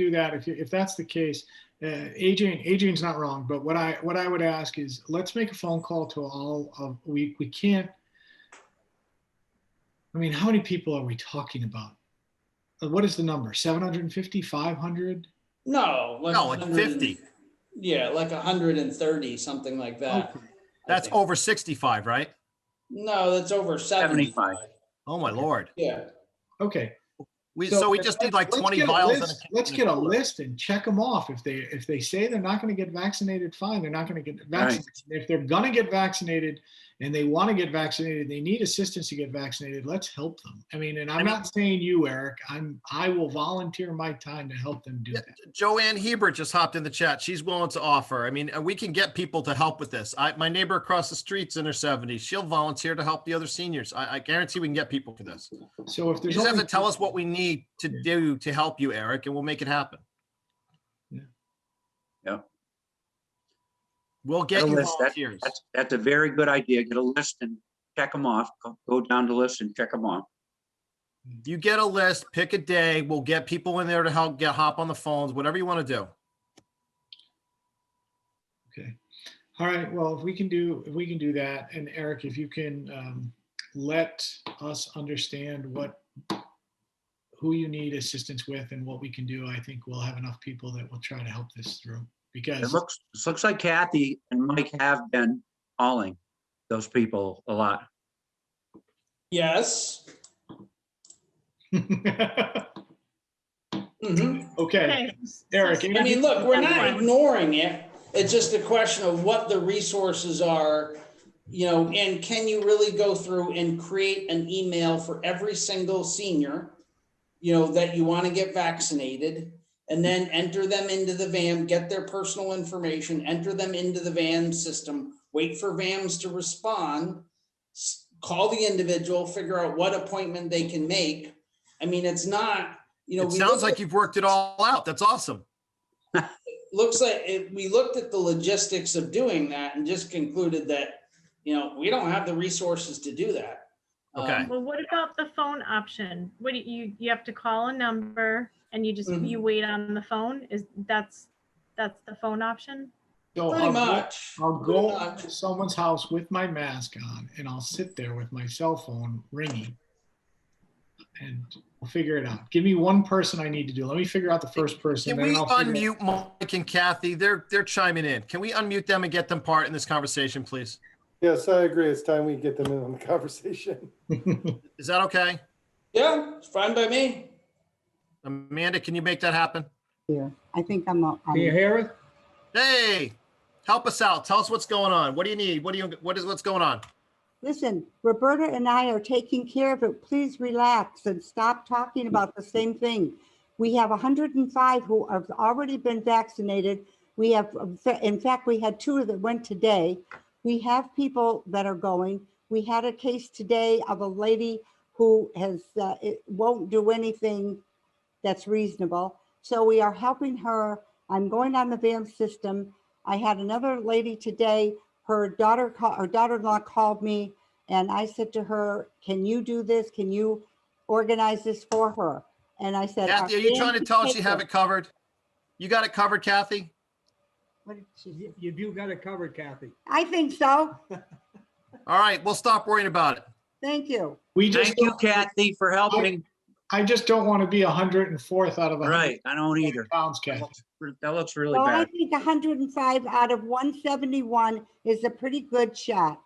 do that, if, if that's the case, uh, Adrian, Adrian's not wrong, but what I, what I would ask is, let's make a phone call to all of, we, we can't. I mean, how many people are we talking about? Uh, What is the number? 750, 500? No. like No, it's 100 and- 50. Yeah, like hundred and thirty, something like that. Okay. I That's think. over 65, right? No, that's over seventy-five. Oh, my lord. Yeah, Okay. We, so we just need like let's 20 get a vials. and list- a- Let's get a list and check them off. If they, if they say they're not going to get vaccinated, fine, they're not going to get vaccinated. If they're going to get vaccinated and they want to get vaccinated, they need assistance to get vaccinated, let's help them. I mean, and I'm not saying you, Eric, I'm, I will volunteer my time to help them do Yeah. that. Joanne Hebert just hopped in the chat. She's willing to offer. I mean, uh, we can get people to help with this. I, my neighbor across the street's in her 70s. She'll volunteer to help the other seniors. I, I guarantee we can get people for this. So if You there's. just have only to tell two- us what we need to do to help you, Eric, and we'll make it happen. Yeah. Yeah. We'll Get get a you list. That- volunteers. That's, that's a very good idea. Get a list and check them off. Go- Go down the list and check them off. You get a list, pick a day. We'll get people in there to help get hop on the phones, whatever you want to do. Okay. All right. Well, if we can do, if we can do that, and Eric, if you can um, let us understand what, who you need assistance with and what we can do, I think we'll have enough people that will try to help this through. It Because, looks, it looks like Kathy and Mike have been calling those people a lot. yes. Mhm. okay, Okay. Eric. I anything- mean, look, we're not ignoring it. It's just a question of what the resources are, you know, and can you really go through and create an email for every single senior, you know, that you want to get vaccinated? And then enter them into the VAM, get their personal information, enter them into the VAM system, wait for VAMs to respond, s- call the individual, figure out what appointment they can make. I mean, it's not, you know. It we sounds look at- like you've worked it all out. That's awesome. looks like it, we looked at the logistics of doing that and just concluded that, you know, we don't have the resources to do that. Okay. Um, Well, what about the phone option? What do you, you have to call a number and you just, Mhm. Mm-hmm. you wait on the phone? Is, that's, that's the phone option? so Pretty Oh, I'll go- much. I'll pretty go much. to someone's house with my mask on and I'll sit there with my cell phone ringing. And we'll figure it out. Give me one person I need to do. Let me figure out the first person. Can then we I'll figure out- unmute Mike and Kathy? They're, they're chiming in. Can we unmute them and get them part in this conversation, please? Yes, I agree. It's time we get them in on the conversation. Is that okay? Yeah, it's fine by me. Amanda, can you make that happen? here. I think I'm, a- Can you I'm- hear it? Hey, help us out. Tell us what's going on. What do you need? What do you, what is, what's going on? listen, Roberta and I are taking care of it. Please relax and stop talking about the same thing. We have 105 who have already been vaccinated. We have, um, in fact, we had two that went today. We have people that are going. We had a case today of a lady who has, uh, it won't do anything that's reasonable. So we are helping her. I'm going on the VAM system. I had another lady today, her daughter, ca- her daughter-in-law called me and I said to her, can you do this? Can you organize this for her? And I said. Kathy, are you trying to tell us you have it covered? You got it covered, Kathy? it? You do got it covered, Kathy. I think so. All right, we'll stop worrying about it. Thank you. We just, Thank you, Kathy, for helping. I just don't want to be a hundred and fourth out of a hundred Right, I don't either. pounds, Kathy. That looks really Well, I bad. think 105 out of 171 is a pretty good shot.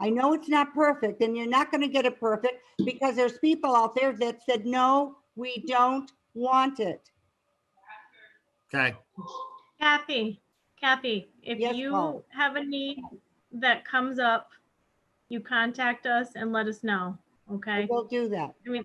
I know it's not perfect and you're not going to get it perfect because there's people out there that said, no, we don't want it. Okay. Kathy, Kathy, if Yes, you Paul. have a need that comes up, you contact us and let us know, okay? We'll do that. I mean,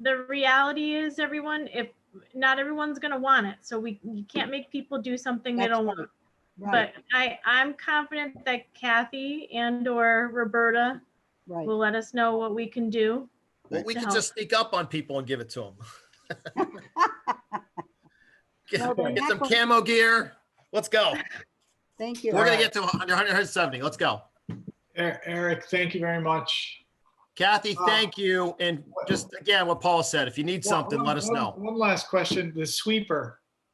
the reality is everyone, if, not everyone's gonna want it, so we, you can't make people do something they That's don't right. want. Right, But I, I'm confident that Kathy and or Roberta right. will let us know what we can do. Well, we To can help. just sneak up on people and give it to them. No, they're Get get not some going- camo gear. Let's go. Thank you. We're gonna get to 100, 170. Let's go. Er- Eric, thank you very much. Kathy, Uh, thank you. And just again, what Paul said, if you need something, One- let us one- know. One last question, the sweeper.